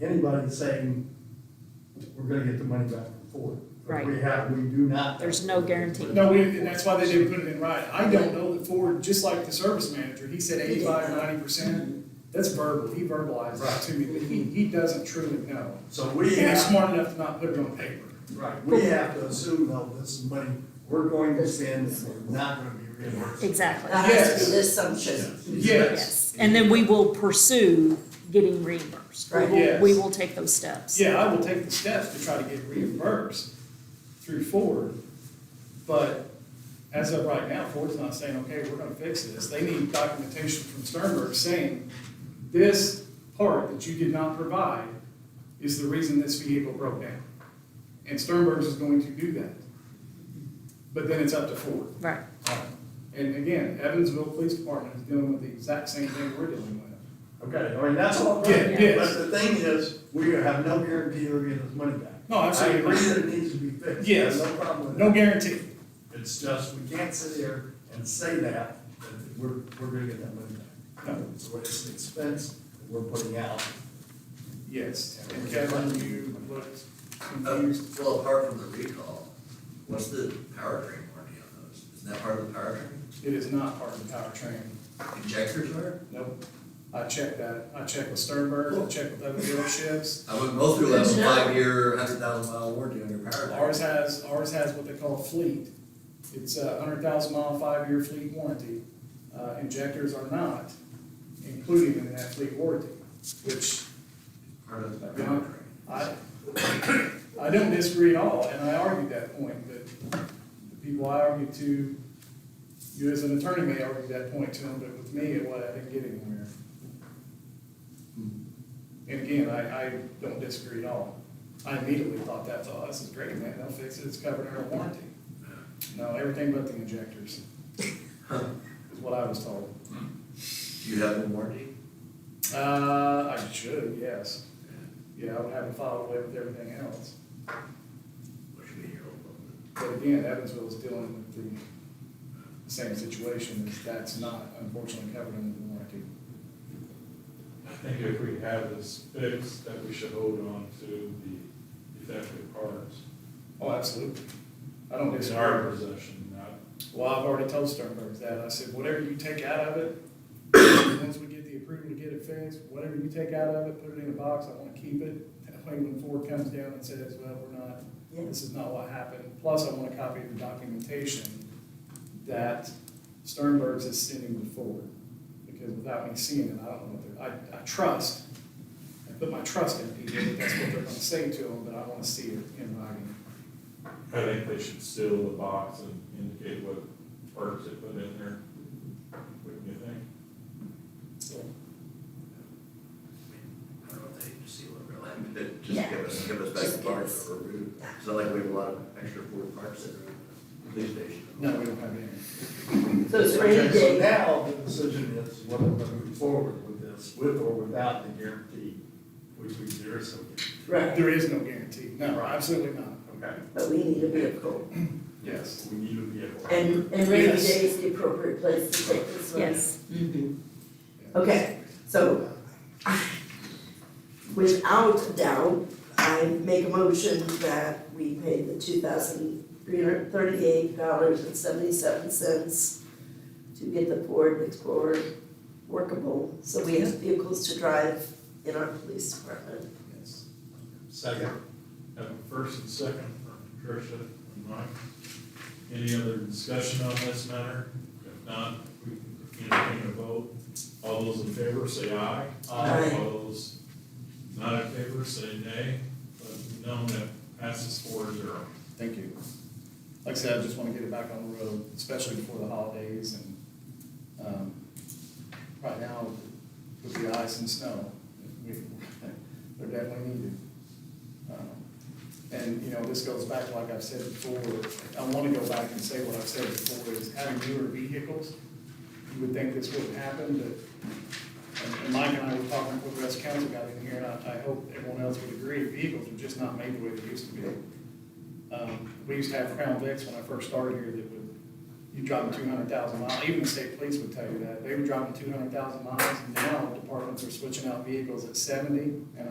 anybody saying we're gonna get the money back for it. But Right. We have, we do not. There's no guarantee. No, we, and that's why they didn't put it in writing. I don't know that Ford, just like the service manager, he said 85, 90 percent. That's verbal, he verbalized it to me, but he, he doesn't truly know. So But we He was have, smart enough to not put it on paper. right, we have to assume though, this is money we're going to spend and we're not gonna be reimbursed. Exactly, Uh, That has to be the assumption. Yes, yes. And then we will pursue getting reimbursed. We Right. will, we Yes. will take those steps. yeah, I will take the steps to try to get reimbursed through Ford, but as of right now, Ford's not saying, okay, we're gonna fix this. They need documentation from Sternberg saying, this part that you did not provide is the reason this vehicle broke down. And Sternberg's is going to do that. But then it's up to Ford. Right, And again, Evansville Police Department is dealing with the exact same thing we're dealing with. Okay, I mean, that's all Yeah, right, yes. but the thing is, we have no guarantee we're getting this money back. No, absolutely. I agree that it needs to be fixed. Yes. No problem with that. No guarantee. It's just, we can't sit here and say that, that we're, we're gonna get that money back. No. So it's an expense that we're putting out. Yes, and Kevin, you looked confused. Oh, Well, apart from the recall, what's the powertrain warranty on those? Isn't that part of the powertrain? It is not part of the powertrain. Injectors are? Nope. I checked that. I checked with Sternberg, I checked with other dealerships. I wouldn't go through a Good to know. five-year, hundred thousand mile warranty on your powertrain. Ours has, ours has what they call fleet. It's a hundred thousand mile, five-year fleet warranty. Uh, injectors are not included in that fleet warranty, which Part of the Yeah. powertrain. I, I don't disagree at all, and I argued that point, but the people I argued to, you as an attorney may argue that point to them, but with me, it was, I didn't get anywhere. And again, I, I don't disagree at all. I immediately thought that, oh, this is great, man, they'll fix it, it's covered under warranty. No, everything but the injectors, Huh. is what I was told. Do you have a warranty? Uh, I should, yes. Yeah, I would have it filed away with everything else. What should be your old one? But again, Evansville is dealing with the the same situation, is that's not unfortunately covered under the warranty. I think if we have this fixed, that we should hold on to the defective parts. Oh, absolutely. I don't It's our disagree. possession, not, Well, I've already told Sternberg that. I said, whatever you take out of it, once we get the approval to get it fixed, whatever you take out of it, put it in a box, I wanna keep it. That way when Ford comes down and says, well, we're not, this is not what happened, plus I want a copy of the documentation that Sternberg's is sending to Ford. Because without me seeing it, I don't know what they're, I, I trust, I put my trust in people, that that's what they're gonna say to them, but I wanna see it in writing. I think they should seal the box and indicate what parts they put in there. Wouldn't you think? So, I don't know if they need to seal it really, but just Yeah. give us, give us back Just the give parts us- that were removed. It's not like we have a lot of extra Ford parts that are in the police station. No, we don't have any. So it's rainy Okay, So day, now the decision is whether we're gonna move forward with this, with or without the guarantee, which we, there is some. right, There is no guarantee, no, absolutely not, Okay. but we need a vehicle. yes. We need to be able. And, and rainy day Yes. is the appropriate place to take this money. yes. Mhm. Okay, so ah, without a doubt, I make a motion that we pay the two thousand three hundred thirty-eight dollars and seventy-seven cents to get the Ford Explorer workable, so we have vehicles to drive in our police department. Yes. Second. Have a first and second from Patricia and Mike. Any other discussion on this matter? If not, we can entertain a vote. All those in favor say aye. Aye. All those not in favor say nay. Let them know that passes four zero. Thank you. Like I said, I just want to get it back on the road, especially before the holidays and, um, right now, with the ice and snow, we, they're definitely needed. Um, And, you know, this goes back, to like I've said before, I want to go back and say what I've said before, is having newer vehicles, you would think this wouldn't happen, but and- and Mike and I were talking before the rest of council got in here, and I, I hope everyone else would agree, vehicles are just not made the way they used to be. Um, we used to have Crown Vics when I first started here that would, you drive them two hundred thousand miles, even the state police would tell you that, they were driving two hundred thousand miles, and now departments are switching out vehicles at seventy and